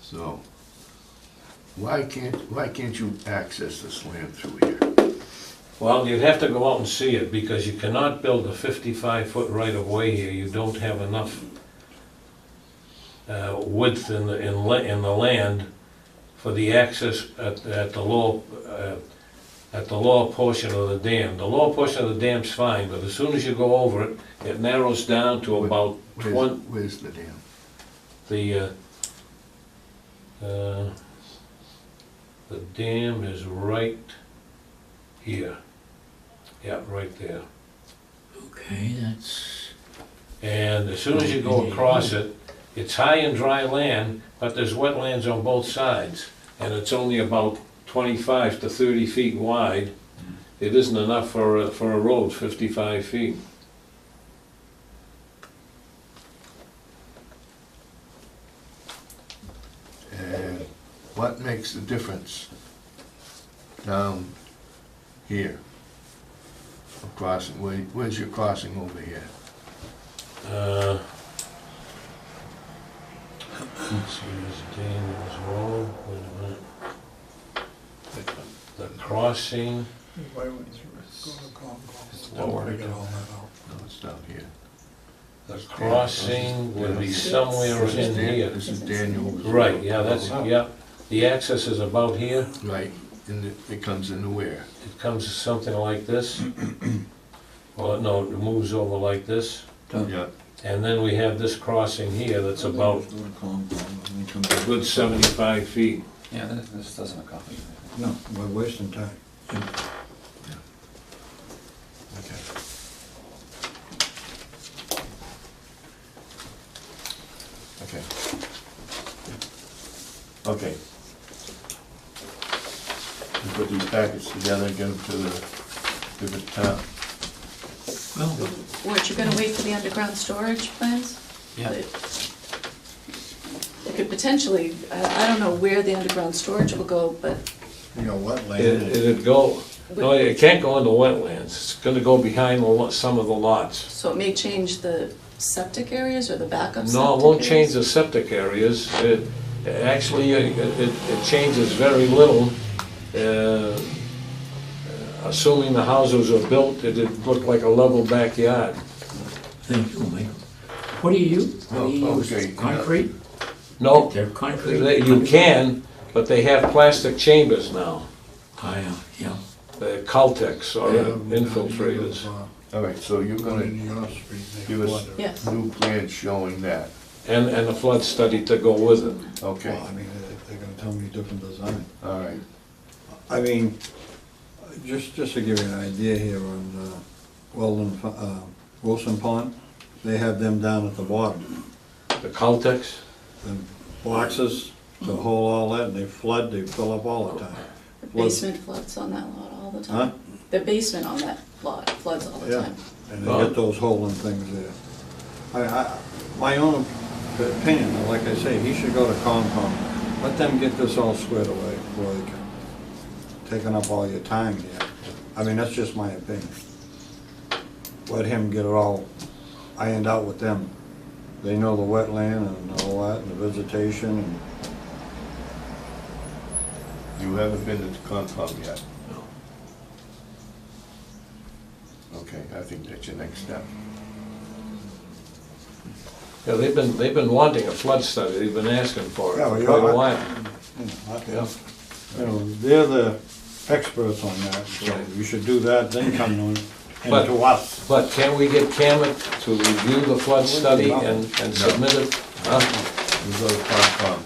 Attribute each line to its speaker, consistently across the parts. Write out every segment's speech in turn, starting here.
Speaker 1: So, why can't, why can't you access the slam through here?
Speaker 2: Well, you'd have to go out and see it, because you cannot build a fifty-five foot right-of-way here, you don't have enough uh, width in the, in la, in the land for the access at, at the lower, uh, at the lower portion of the dam. The lower portion of the dam's fine, but as soon as you go over it, it narrows down to about
Speaker 1: Where's-
Speaker 2: twenty,
Speaker 1: Where's the dam?
Speaker 2: the, uh, uh, the dam is right here. Yeah, right there.
Speaker 3: Okay, that's,
Speaker 2: And as soon as you go across it, it's high and dry land, but there's wetlands on both sides. And it's only about twenty-five to thirty feet wide. It isn't enough for, a- for a road, fifty-five feet.
Speaker 1: And what makes the difference down here? Of Crossing, where, where's your crossing over here?
Speaker 2: Uh, Let's see, is Daniel's Road, wait a minute. The crossing,
Speaker 4: Why would you go to Comcast?
Speaker 1: Don't worry.
Speaker 4: Figure all that out.
Speaker 1: No, it's down here.
Speaker 2: the crossing would be somewhere
Speaker 1: This is
Speaker 2: in
Speaker 1: Dan-
Speaker 2: here.
Speaker 1: This is Daniel's.
Speaker 2: Right, yeah, that's, yeah, the access is about here.
Speaker 1: Right, and it, it comes into where?
Speaker 2: It comes to something like this. Well, no, it moves over like this.
Speaker 1: Yeah.
Speaker 2: And then we have this crossing here that's about a good seventy-five feet.
Speaker 5: Yeah, this- this doesn't accomplish anything.
Speaker 4: No, we're wasting time.
Speaker 1: Okay. Okay. We Put these packets together, get them to the different town.
Speaker 3: well,
Speaker 6: What, you're gonna wait for the underground storage plans?
Speaker 3: yeah,
Speaker 6: They could potentially, I I don't know where the underground storage will go, but
Speaker 4: You know, wetland.
Speaker 2: It- It'd go, no, Oh, it can't go into wetlands. It's gonna go behind the lo- some of the lots.
Speaker 6: so it may change the septic areas or the backup septic
Speaker 2: No, it won't change
Speaker 6: areas?
Speaker 2: the septic areas. It, it actually, it, it it changes very little. Uh, Assuming the houses are built, it'd look like a level backyard.
Speaker 3: thank you, Mike. What do you use? What do you
Speaker 1: Oh, okay,
Speaker 3: use?
Speaker 1: yeah.
Speaker 3: Concrete?
Speaker 2: No,
Speaker 3: They're concrete?
Speaker 2: They- You can, but they have plastic chambers now,
Speaker 3: I, uh, yeah,
Speaker 2: the Caltex
Speaker 1: Oh,
Speaker 2: or
Speaker 4: Yeah.
Speaker 2: infiltrators.
Speaker 1: All right, so you're
Speaker 4: Going
Speaker 1: gonna
Speaker 4: in your street, they
Speaker 1: Give us-
Speaker 4: flood it.
Speaker 6: Yes,
Speaker 1: new plans showing that,
Speaker 2: And, and a flood study to go with it.
Speaker 1: okay,
Speaker 4: Well, I mean, if they're gonna tell me different design.
Speaker 1: all right.
Speaker 4: I mean, just, just to give you an idea here on, uh, Weldon, Fa- uh, Wilson Pond, they have them down at the bottom.
Speaker 2: The Caltex,
Speaker 4: And boxes to hold all that, and they flood, they fill up all the time.
Speaker 6: the
Speaker 4: Well-
Speaker 6: basement floods on that lot all the
Speaker 4: Huh?
Speaker 6: time. The basement on that lot floods all the
Speaker 4: Yeah.
Speaker 6: time.
Speaker 4: And they get those holding things there. I, I, my own opinion, like I say, he should go to Concom. Let them get this all squared away before they come. Taking up all your time here. I mean, that's just my opinion. Let him get it all ironed out with them. They know the wetland and all that, and the vegetation, and
Speaker 1: You haven't been to Concom yet? No. Okay, I think that's your next step.
Speaker 2: yeah, they've been, they've been wanting a flood study, they've been asking for it
Speaker 4: Yeah, well,
Speaker 2: for
Speaker 4: you
Speaker 2: quite a
Speaker 4: are-
Speaker 2: while.
Speaker 4: you know,
Speaker 2: Yeah.
Speaker 4: you know, they're the experts on that, so
Speaker 2: Right.
Speaker 4: you should do that, then come to,
Speaker 2: But-
Speaker 4: and to us.
Speaker 2: But can we get Camet to review the flood study and, and submit it? Huh?
Speaker 1: You go to Concom.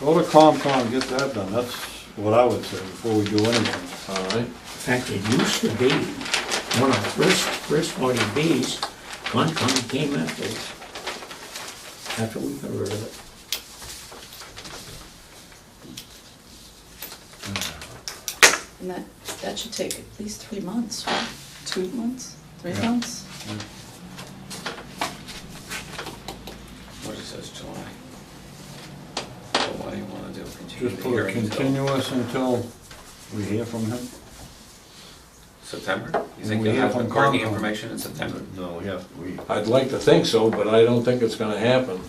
Speaker 4: Go to Concom, get that done, that's what I would say before we do anything.
Speaker 2: All right,
Speaker 3: in fact, it used to be, one of the first, first forty Bs, Concom came after, after we got rid of it.
Speaker 6: And that, that should take at least three months, right? two months, three
Speaker 4: Yeah.
Speaker 6: months?
Speaker 5: What it says July. So what do you wanna do, continue
Speaker 4: Just
Speaker 5: the
Speaker 4: put a
Speaker 5: hearing until
Speaker 4: continuous until we hear from him.
Speaker 5: September? You
Speaker 4: And
Speaker 5: think
Speaker 4: we
Speaker 5: you'll
Speaker 4: hear
Speaker 5: have the
Speaker 4: from
Speaker 5: parking
Speaker 4: Concom.
Speaker 5: information in September?
Speaker 1: No, we have, we
Speaker 2: I'd like to think so, but I don't think it's gonna happen.